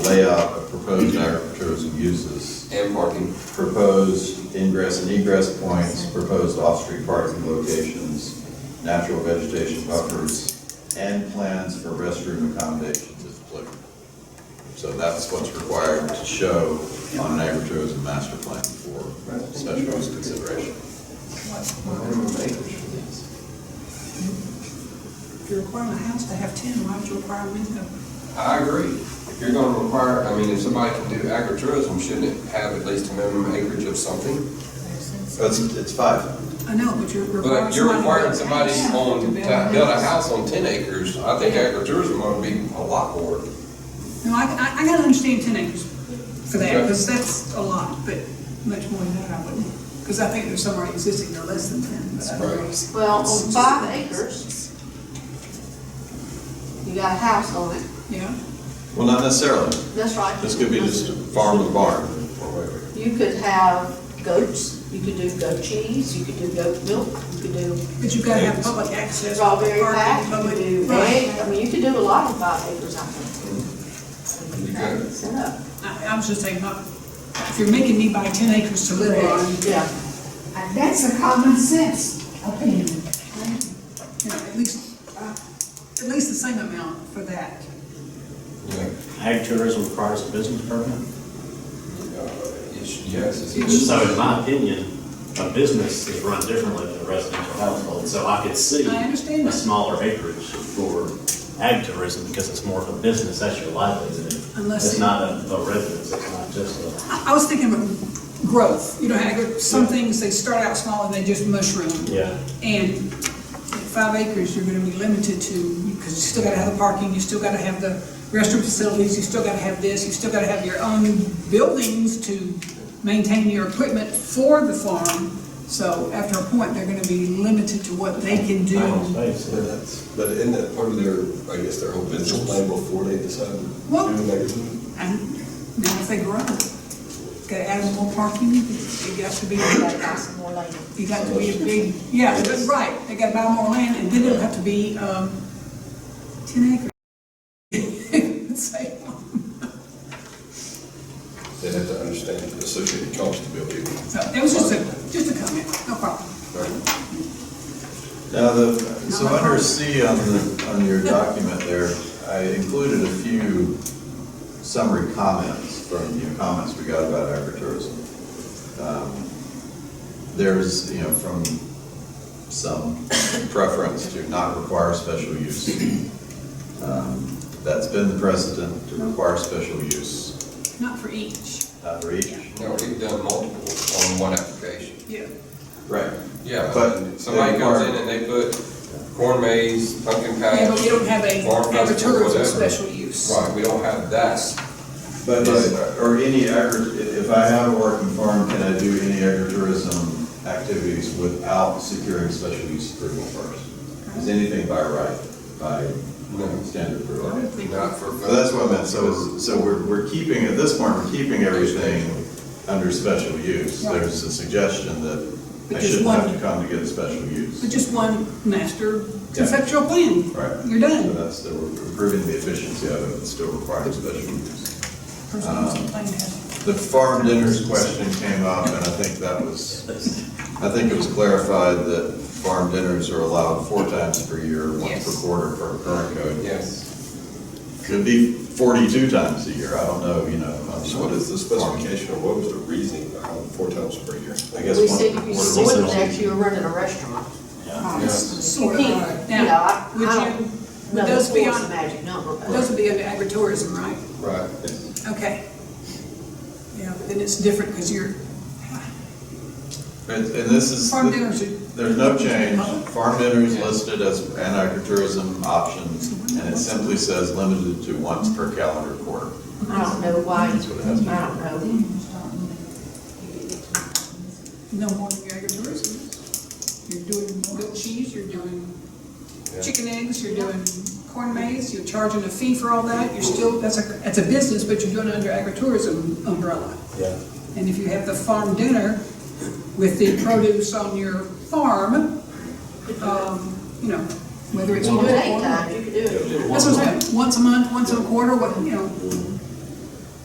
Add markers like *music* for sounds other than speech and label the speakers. Speaker 1: layout of proposed agritourism uses,
Speaker 2: and parking.
Speaker 1: proposed ingress and egress points, proposed off-street parking locations, natural vegetation buffers, and plans for restroom accommodations if applicable. So that's what's required to show on an agritourism master plan for special use consideration.
Speaker 3: If you're requiring a house to have ten, why would you require a window?
Speaker 2: I agree. If you're gonna require, I mean, if somebody can do agritourism, shouldn't it have at least a minimum acreage of something?
Speaker 1: It's, it's five.
Speaker 3: I know, but you're requiring somebody.
Speaker 2: But you're requiring
Speaker 3: to
Speaker 2: somebody
Speaker 3: have a house
Speaker 2: on, to build a house on ten acres, I think agritourism ought to be a lot more.
Speaker 3: No, I, I, I gotta understand ten acres for that,
Speaker 2: Okay.
Speaker 3: because that's a lot, but much more than that, I wouldn't. Because I think there's some already existing, they're less than ten, but I don't know.
Speaker 2: Right.
Speaker 4: Well, on five acres, you got a house on it,
Speaker 3: Yeah,
Speaker 1: Well, not necessarily.
Speaker 4: that's right.
Speaker 1: This could be just a farm to barn or whatever.
Speaker 4: You could have goats, you could do goat cheese, you could do goat milk, you could do
Speaker 3: but you've gotta have public access.
Speaker 4: strawberry
Speaker 3: parking,
Speaker 4: patch, you
Speaker 3: public-
Speaker 4: could do
Speaker 3: Right.
Speaker 4: egg, I mean, you could do a lot on five acres, I think.
Speaker 2: You
Speaker 4: Try
Speaker 2: could.
Speaker 4: and set up.
Speaker 3: I, I was just saying, not- if you're making me buy ten acres to live on,
Speaker 4: Yeah,
Speaker 5: And That's a common sense opinion.
Speaker 3: you know, at least, uh, at least the same amount for that.
Speaker 2: Yeah.
Speaker 6: Ag tourism requires a business permit.
Speaker 2: Uh, it should- Yes, it's.
Speaker 6: So in my opinion, a business is run differently than a residential household. So I could see
Speaker 3: I understand
Speaker 6: a
Speaker 3: that.
Speaker 6: smaller acreage for ag tourism because it's more of a business, that's your livelihood.
Speaker 3: Unless
Speaker 6: It's
Speaker 3: it-
Speaker 6: not a a residence, it's not just a.
Speaker 3: I I was thinking of growth, you know, how agri- some things, they start out small and they just mushroom.
Speaker 6: Yeah.
Speaker 3: And at five acres, you're gonna be limited to, because you still gotta have the parking, you still gotta have the restroom facilities, you still gotta have this, you still gotta have your own buildings to maintain your equipment for the farm. So after a point, they're gonna be limited to what they can do.
Speaker 7: But that's- But isn't that part of their, I guess, their whole business plan before they decide to do
Speaker 3: Well-
Speaker 7: the magazine?
Speaker 3: And now if they grow, gotta add more parking, it got to be like
Speaker 4: buy some more later.
Speaker 3: You got to be a big, yeah, but right, they gotta buy more land, and then it'll have to be, um, ten acres. *laughs* um, It's like,
Speaker 7: They'd have to understand the associated cost to be able to. do it.
Speaker 3: So, it was just a, just a comment, no problem.
Speaker 1: Now, the, so under C on the, on your document there, I included a few summary comments from your comments we got about agritourism. Um, There's, you know, from some preference to not require special use. Um, That's been the precedent to require special use, Uh,
Speaker 3: Not for each,
Speaker 1: not for each.
Speaker 2: No, we've done multiple on one application.
Speaker 3: yeah.
Speaker 1: Right.
Speaker 2: Yeah,
Speaker 1: But
Speaker 2: but somebody
Speaker 1: they
Speaker 2: comes
Speaker 1: require-
Speaker 2: in and they put corn maze, pumpkin patch.
Speaker 3: Yeah, but we don't have a
Speaker 2: farm festival,
Speaker 3: agritourism
Speaker 2: whatever.
Speaker 3: special use.
Speaker 2: Right, we don't have that.
Speaker 1: But, is- or any agri, if I have a working farm, can I do any agritourism activities without securing special use approval first? Is anything by right, by standard
Speaker 3: I
Speaker 1: approval?
Speaker 3: don't think-
Speaker 2: Not for.
Speaker 1: So that's what I meant, so, is- so we're, we're keeping, at this point, we're keeping everything under special use.
Speaker 3: Right.
Speaker 1: There's a suggestion that I
Speaker 3: But just
Speaker 1: shouldn't have
Speaker 3: one-
Speaker 1: to come to get a special use.
Speaker 3: But just one master conceptual plan,
Speaker 1: Right. Uh,
Speaker 3: you're
Speaker 1: So
Speaker 3: done.
Speaker 1: that's, the- we're improving the efficiency of it, but still requires special use.
Speaker 3: Person who's complaining has-
Speaker 1: The farm dinners question came up, and I think that was, I think it was clarified that farm dinners are allowed four times per year, one per
Speaker 3: Yes.
Speaker 1: quarter per current code.
Speaker 2: Yes.
Speaker 1: Could be forty-two times a year, I don't know, you know. I'm
Speaker 7: So what
Speaker 1: not-
Speaker 7: is the specification, or what was the reasoning behind four times per year?
Speaker 1: I guess
Speaker 4: We
Speaker 1: one
Speaker 4: said
Speaker 1: per
Speaker 4: if you
Speaker 1: quarter.
Speaker 4: sold that, you were running a restaurant.
Speaker 3: Sort of.
Speaker 4: You can't, you know,
Speaker 3: Now,
Speaker 4: I- I
Speaker 3: uh, would
Speaker 4: don't-
Speaker 3: you, would
Speaker 4: No,
Speaker 3: those be
Speaker 4: four's a
Speaker 3: on,
Speaker 4: magic number, but.
Speaker 3: those would be under agritourism, right?
Speaker 2: Right.
Speaker 3: Okay. Yeah, but then it's different because you're,
Speaker 1: And and this is,
Speaker 3: Farm dinners are-
Speaker 1: there's no change. Farm dinners listed as an agritourism option, and it simply says limited to once per calendar quarter.
Speaker 4: I don't know why, I
Speaker 1: That's what it has to
Speaker 4: don't
Speaker 1: be.
Speaker 4: know.
Speaker 3: no more than your agritourism. You're doing goat cheese, you're doing chicken eggs, you're doing corn maze, you're charging a fee for all that. You're still, that's a, that's a business, but you're doing it under agritourism umbrella.
Speaker 6: Yeah.
Speaker 3: And if you have the farm dinner with the produce on your farm, um, you know, whether it's.
Speaker 4: You do it
Speaker 3: one
Speaker 4: eight
Speaker 3: or-
Speaker 4: times, you could do it.
Speaker 3: That's what I'm saying, once a month, once a quarter, what, you know,